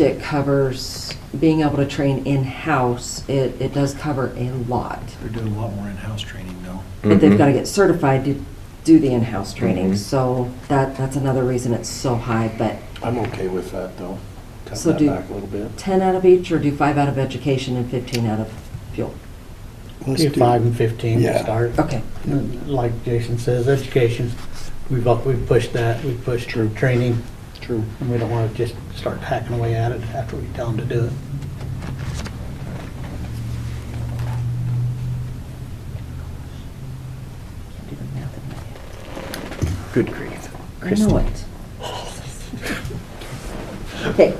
it covers being able to train in-house. It, it does cover a lot. They're doing a lot more in-house training though. But they've Mhm. got to get certified to do the in-house training. Mhm. So that, that's another reason it's so high. But I'm okay with that, though. Cut So that do- back a little bit. 10 out of each or do five out of education and 15 out of fuel? Let's Do five and fifteen to Yeah. start. Okay. Like Jason says, education, we've, up- we've pushed that, we've pushed True. training, True. and we don't want to just start hacking away at it after we tell them to do it. Good grief. I know it. Okay.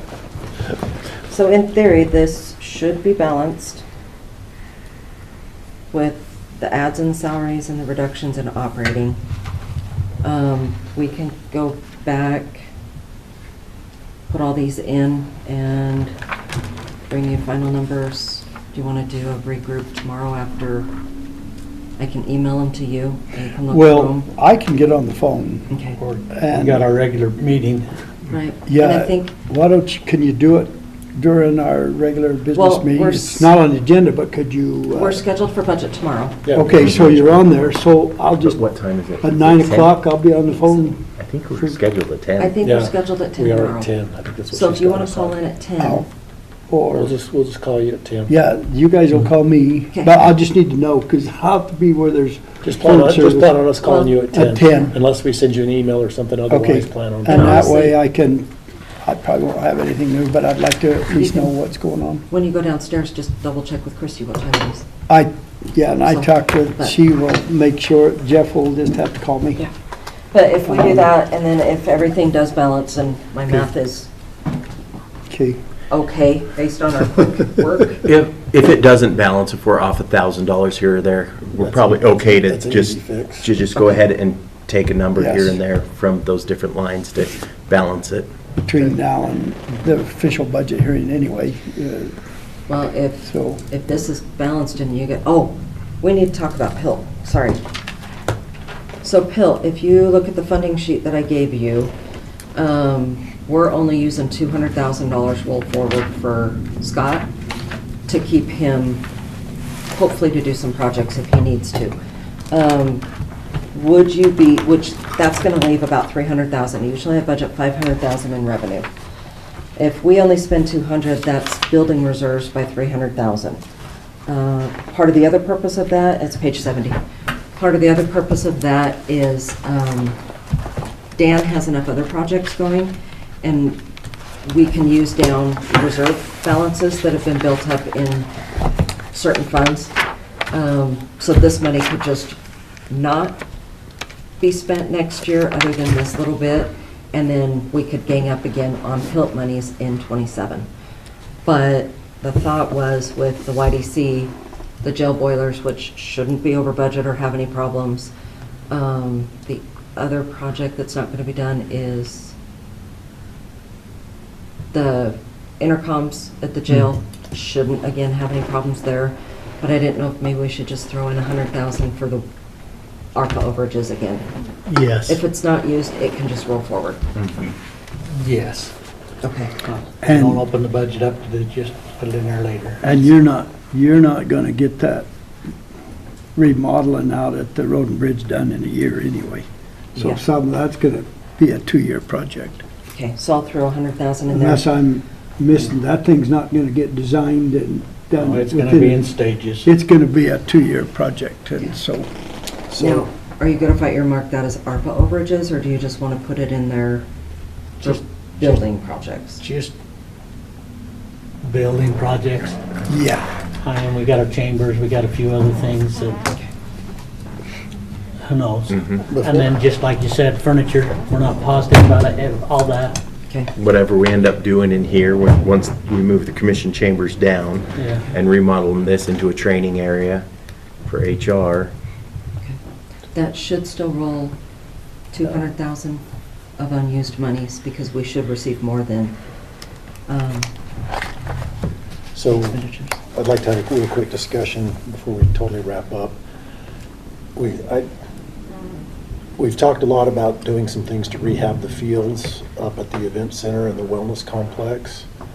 So in theory, this should be balanced with the ads and salaries and the reductions in operating. Um, We can go back, put all these in, and bring you final numbers. Do you want to do a regroup tomorrow after? I can email them to you, and you can look through Well, 'em. I can get on the phone. Okay. Or We And- got our regular meeting. Right. And I Yeah, think why don't you, can you do it during our regular Well, business meeting? we're It's s- not on the agenda, but could you? uh, We're scheduled for budget tomorrow. Okay, so you're on there, so I'll just, What time is it? at nine Is it 10? o'clock, I'll be on the phone. I think we're scheduled at ten. I think we're Yeah, scheduled at 10 We tomorrow. are at 10. I think that's what So she's if you got want to us call on. Oh, in at 10, I'll- We'll Or, just, we'll just call you at 10. yeah, you guys will call me, Okay. but I just need to know, because I'll have to be where there's. Just plan phone on, just service. plan on us calling you at 10. At 10. Unless we send you an email or something, Okay, otherwise plan on. and calling that us. way I can, I probably won't have anything new, but I'd like to at least know what's going on. when you go downstairs, just double check with Christie what time it is. I, yeah, and I So, talked with, but- she will make sure, Jeff will just have to call me. Yeah. But if we do that, and then if everything does balance and my math is Okay, okay based on our quick work, If, if it doesn't balance, if we're off a thousand dollars here or there, we're That's probably okay to that's an just, easy fix. to just go ahead and take a number here Yes. and there from those different lines to balance it. between now and the official budget hearing anyway, uh, well, if, so, if this is balanced and you get, oh, we need to talk about PIL, sorry. So PIL, if you look at the funding sheet that I gave you, um, we're only using $200,000 roll forward for Scott to keep him hopefully to do some projects if he needs to. Um, Would you be, which, that's going to leave about 300,000. Usually I budget 500,000 in revenue. If we only spend 200, that's building reserves by 300,000. Uh, Part of the other purpose of that, it's page 70. Part of the other purpose of that is um, Dan has enough other projects going, and we can use down reserve balances that have been built up in certain funds. Um, So this money could just not be spent next year, other than this little bit, and then we could gang up again on PILT monies in '27. But the thought was with the YDC, the jail boilers, which shouldn't be over budget or have any problems. um, The other project that's not going to be done is the intercoms at the jail shouldn't, again, have any problems there, but I didn't know if maybe we should just throw in a hundred thousand for the ARPA overages again. Yes. If it's not used, it can just roll forward. Yes. Okay. And- Uh, Don't open the budget up to the- just put it in there later. and you're not, you're not gonna get that remodeling out at the road and bridge done in a year anyway. So Yeah. some, that's gonna be a two-year project. Okay, so I'll throw a hundred thousand in there. Unless I'm missing, that thing's not gonna get designed and done. No, It's going to within- be in stages. It's gonna be a two-year project, and so, Now, so, are you good if I earmark that as ARPA overages, or do you just want to put it in there for Just- building projects? Just building projects. yeah. And we got our chambers, we got a few other things that, who knows? And then, just like you said, furniture, we're not positive about it, and all that, Okay, Whatever we end up doing in here, when- once we move the commission chambers down Yeah. and remodeling this into a training area for HR, that should still roll two hundred thousand of unused monies, because we should receive more than, um, So expenditures. I'd like to have a real quick discussion before we totally wrap up. We, I, we've talked a lot about doing some things to rehab the fields up at the event center and the wellness complex. Um,